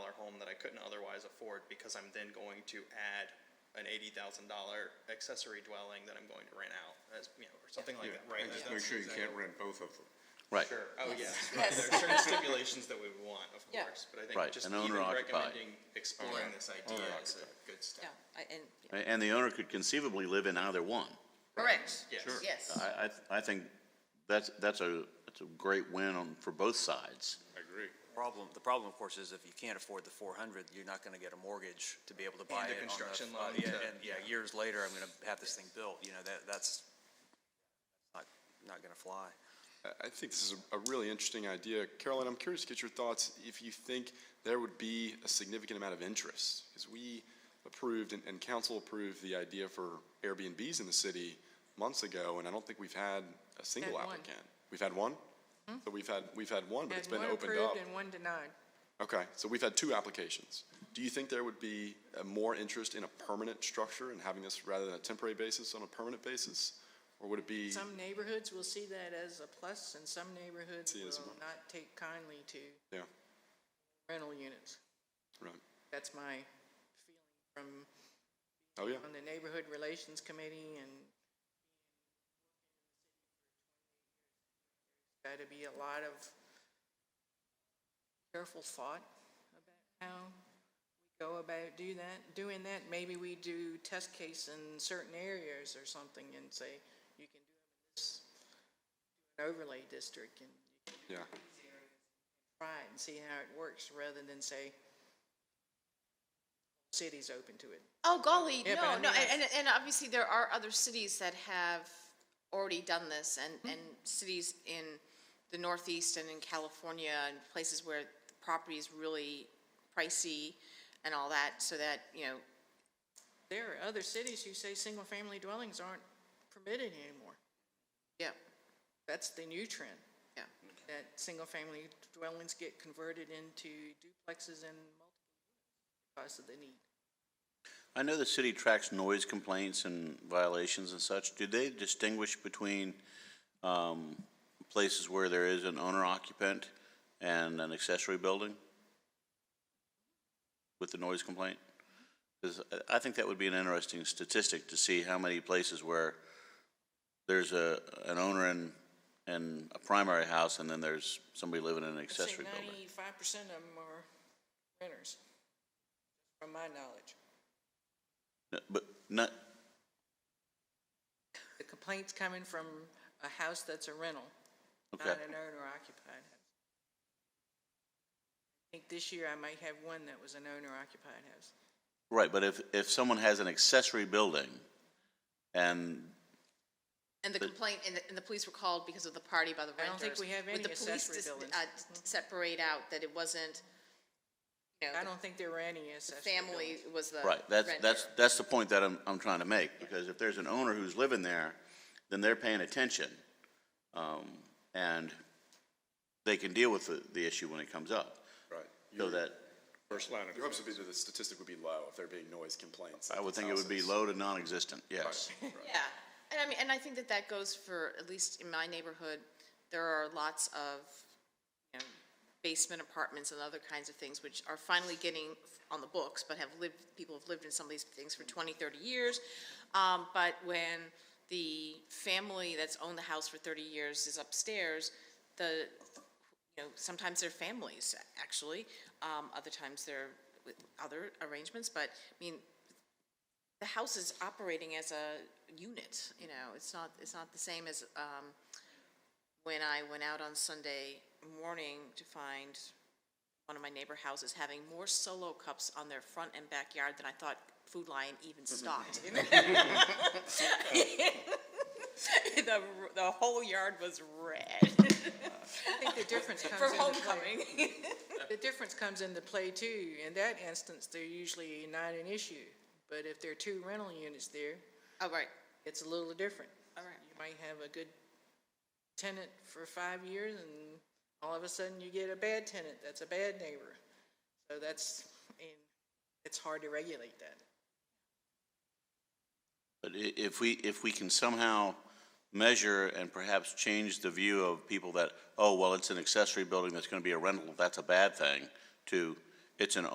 couldn't otherwise afford because I'm then going to add an eighty thousand dollar accessory dwelling that I'm going to rent out as, you know, or something like that, right? And just That's- make sure you can't rent both of them. Right. Sure, oh, yes, right, Yes. there are certain stipulations that we would want, of Yeah. course, but I think Right, just an even owner-occupied. recommending, exploring this idea is a Owner-occupied. good step. Yeah, I- and, A- And the owner could conceivably live in either one. Correct. Yes. Sure. Yes. I, I, th- I think that's, that's a, that's a great win on, for both sides. I agree. Problem, the problem, of course, is if you can't afford the four hundred, you're not gonna get a mortgage to be able to a buy it. on the- construction loan on- Yeah, to- and, yeah, years later, I'm gonna have this thing built, you know, that, that's not, not gonna fly. I- I think this is a- a really interesting idea. Carolyn, I'm curious to get your thoughts if you think there would be a significant amount of interest. Because we approved and, and council approved the idea for Airbnbs in the city months ago, and I don't think we've had a single Had one. Hmm? applicant. We've had one? So we've had, we've had one, but it's Had been one opened up. approved and one denied. Okay, so we've had two applications. Do you think there would be uh, more interest in a permanent structure and having this rather than a temporary basis on a permanent basis? Or would it be? Some neighborhoods will see that as a plus, and some neighborhoods See it as a will minus. not take kindly to Yeah, rental units. right. That's my feeling from, Oh, yeah. on the Neighborhood Relations Committee and gotta be a lot of careful thought about how we go about do that, doing that. Maybe we do test case in certain areas or something and say, you can do this an overlay district and Yeah, try it and see how it works, rather than say, city's open to it. Oh golly, Yeah, but I no, no, mean, I- and, and obviously there are other cities that have already done this Mm-hmm. and, and cities in the northeast and in California and places where the property is really pricey and all that, so that, you know, There are other cities who say single-family dwellings aren't permitted anymore. yeah, That's the new trend, yeah. that single-family dwellings get converted into duplexes and multiple units because of the need. I know the city tracks noise complaints and violations and such. Do they distinguish between, um, places where there is an owner occupant and an accessory building? With the noise complaint? Because I, I think that would be an interesting statistic to see how many places where there's a, an owner and, and a primary house and then there's somebody living in an accessory I building. think ninety-five percent of them are renters, from my knowledge. No, But not, The complaint's coming from a house that's a rental, not Okay. an owner occupied house. I think this year I might have one that was an owner occupied house. Right, but if, if someone has an accessory building and, And the complaint, and the, and the police were called because of the party by the I renters. don't think we have Would the any police accessory dis- buildings. Mm-hmm. uh, d- Separate out that it wasn't, you know, I don't think there were any the accessory family buildings. was the right, that's, that's, renter. that's the point that I'm, I'm trying to make, because if there's an owner who's living there, then they're paying attention. Um, and they can deal with the, the issue when it comes up. right. So that, First line of Your defense. observation that the statistic would be low if there being noise complaints. at I would those think it would be houses. low to non-existent, yes. Right. Yeah, and I mean, and I think that that goes for, at least in my neighborhood, there are lots of, you know, basement apartments and other kinds of things, which are finally getting on the books, but have lived, people have lived in some of these things for 20, 30 years. Um, but when the family that's owned the house for 30 years is upstairs, the, you know, sometimes they're families, actually, um, other times they're with other arrangements, but, I mean, the house is operating as a unit, you know, it's not, it's not the same as, um, when I went out on Sunday morning to find one of my neighbor houses having more solo cups on their front and backyard than I thought Food Lion even stocked. The, the whole yard was red I think the difference comes for into play. homecoming. The difference comes into play too. In that instance, they're usually not an issue. But if there are two rental units there, Oh, right, it's a little different. all right. You might have a good tenant for five years and all of a sudden you get a bad tenant that's a bad neighbor. So that's, and it's hard to regulate that. But i- if we, if we can somehow measure and perhaps change the view of people that, oh, well, it's an accessory building that's gonna be a rental, that's a bad thing, to, it's an